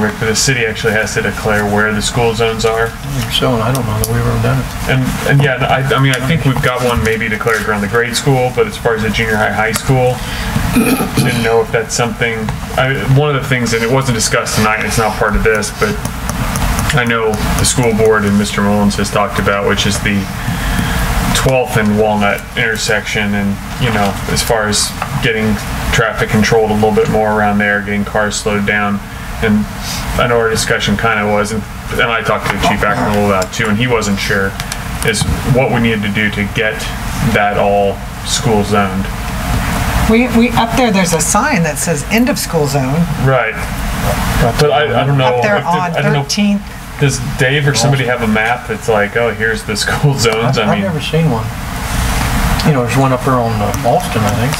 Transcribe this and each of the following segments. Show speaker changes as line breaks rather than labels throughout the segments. Rick, but the city actually has to declare where the school zones are.
So, and I don't know that we've ever done it.
And, and yeah, I, I mean, I think we've got one maybe declared around the grade school, but as far as the junior high, high school, didn't know if that's something, I, one of the things, and it wasn't discussed tonight, it's not part of this, but I know the school board and Mr. Mullins has talked about, which is the 12th and Walnut intersection, and, you know, as far as getting traffic controlled a little bit more around there, getting cars slowed down. And I know our discussion kind of was, and and I talked to Chief Ackman a little about it too, and he wasn't sure, is what we needed to do to get that all school zoned.
We, we, up there, there's a sign that says end of school zone,
Right. But I, I don't know.
up there
if the-
on
I don't know-
13th.
Does Dave or somebody have a map that's like, oh, here's the school zones? I
I've I've
mean,
never seen one. You know, there's one up there on uh, Boston, I think.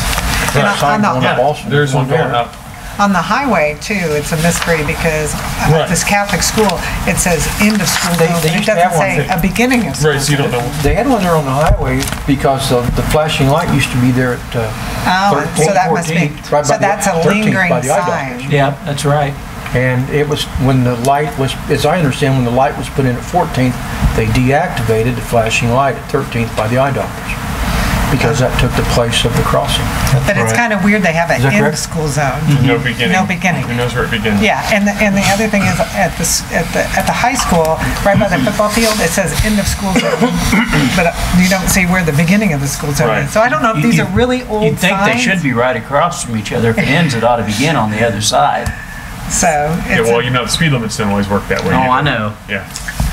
And I-
Sign
I'm not-
going
yeah,
up Boston.
there's one going
there.
up.
On the highway too, it's a mystery because at
Right.
this Catholic school, it says end of school
They-
zone,
they
and it
used to have
doesn't
one
say
that-
a beginning of school.
Right, so you don't know.
They had one there on the highway because of the flashing light used to be there at uh,
Oh, and
13,
so that must be,
14, right by
so
the-
that's a
13th by
lingering
the eye doctor.
sign.
Yeah, that's right.
And it was, when the light was, as I understand, when the light was put in at 14th, they deactivated the flashing light at 13th by the eye doctors, because that took the place of the crossing.
But it's kind of weird they have an
that
end
correct?
of school zone.
No beginning.
No beginning.
Who knows where it begins?
Yeah, and the, and the other thing is at the, s- at the, at the high school, right by the football field, it says end of school zone. But uh, you don't see where the beginning of the school zone
Right.
is. So I don't know if these are really
you
old
think they
signs.
should be right across from each other. If it ends, it ought to begin on the other side.
So
Yeah,
it's,
well,
a-
you know, the speed limits don't always work that way.
Oh, I
either.
know.
Yeah.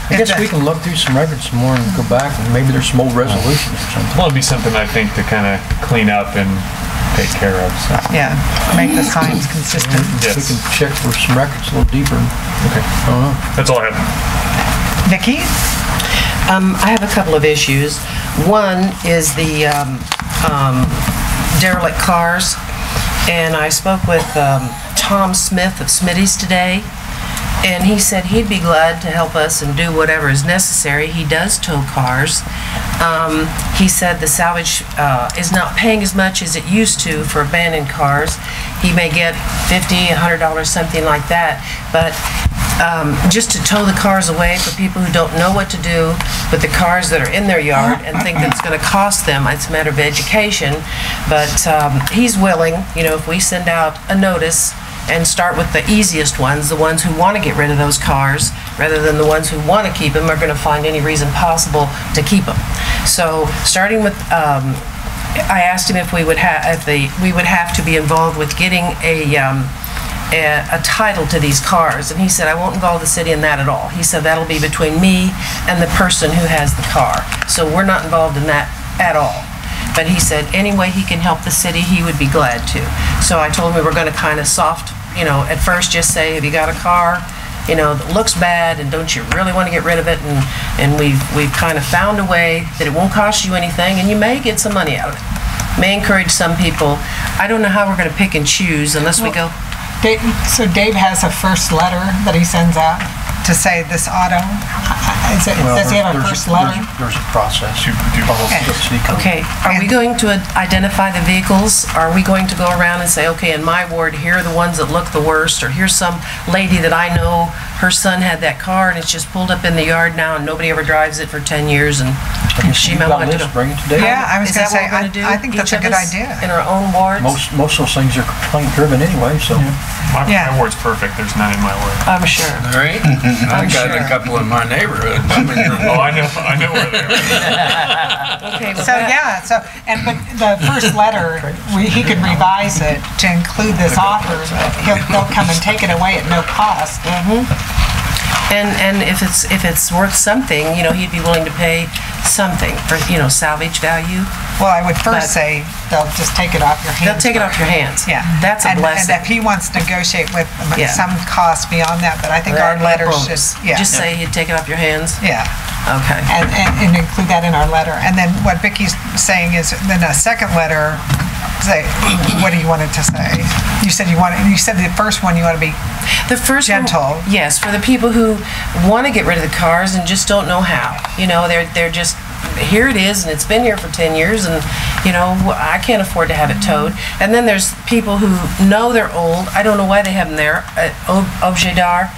I
It's
guess
a-
we can look through some records some more and go back, and maybe there's some old resolutions or something.
Well, it'd be something I think to kind of clean up and take care of. So.
yeah, make the signs
Mm-hmm.
consistent.
We
Yes.
can check for some records a little deeper.
Okay. That's all I have.
Vicki?
Um, I have a couple of issues. One is the um, um, derelict cars, and I spoke with um, Tom Smith of Smitty's today, and he said he'd be glad to help us and do whatever is necessary. He does tow cars. Um, He said the salvage uh, is not paying as much as it used to for abandoned cars. He may get $50, $100, something like that, but um, just to tow the cars away for people who don't know what to do with the cars that are in their yard and think that it's going to cost them. It's a matter of education. But um, he's willing, you know, if we send out a notice and start with the easiest ones, the ones who want to get rid of those cars, rather than the ones who want to keep them are going to find any reason possible to keep them. So starting with um, I asked him if we would have, if the, we would have to be involved with getting a, um, a a title to these cars, and he said, I won't involve the city in that at all. He said, that'll be between me and the person who has the car. So we're not involved in that at all. But he said, any way he can help the city, he would be glad to. So I told him we were gonna kind of soft, you know, at first just say, have you got a car? you know, that looks bad, and don't you really want to get rid of it? And, and we've, we've kind of found a way that it won't cost you anything, and you may get some money out of it. May encourage some people. I don't know how we're going to pick and choose unless we go,
Dave, so Dave has a first letter that he sends out to say this auto? Is it,
Well,
does he have a
there's-
first letter?
There's there's a process.
You do both.
okay, are we going to identify the vehicles? Are we going to go around and say, okay, in my ward, here are the ones that look the worst, or here's some lady that I know, her son had that car, and it's just pulled up in the yard now, and nobody ever drives it for 10 years, and she might want to know.
Bring it today.
Yeah, I was
Is
gonna
that what
say,
we're gonna
I-
do?
I think that's
Each
a good
of us
idea.
In our own wards?
Most, most of those things are complaint driven anyway, so.
My,
Yeah.
my word's perfect. There's none in my way.
I'm sure.
All right. I
I'm
got a
sure.
couple in my neighborhood. I mean,
Oh, I know. I know where they are.
Okay, well,
So,
that-
yeah, so, and, but the first letter, we- he could revise it to include this offer. He'll, they'll come and take it away at no cost.
Mm-hmm. And, and if it's, if it's worth something, you know, he'd be willing to pay something for, you know, salvage value.
Well, I would first
But-
say they'll just take it off your hands.
They'll take it off your hands.
Yeah.
That's a
And- And if
blessing.
he wants to negotiate with them at
Yeah.
some cost beyond that, but I think our
That
letter should,
bonus.
yeah.
Just say he'd take it off your hands?
Yeah.
Okay.
and, and and include that in our letter. And then what Vicky's saying is, then a second letter, say, what do you want it to say? You said you want, you said the first one, you want to be,
The first one-
Gentle.
yes, for the people who want to get rid of the cars and just don't know how. You know, they're they're just here it is, and it's been here for 10 years, and, you know, I can't afford to have it towed. And then there's people who know they're old, I don't know why they have them there, at Uh, O- Objet d'Art,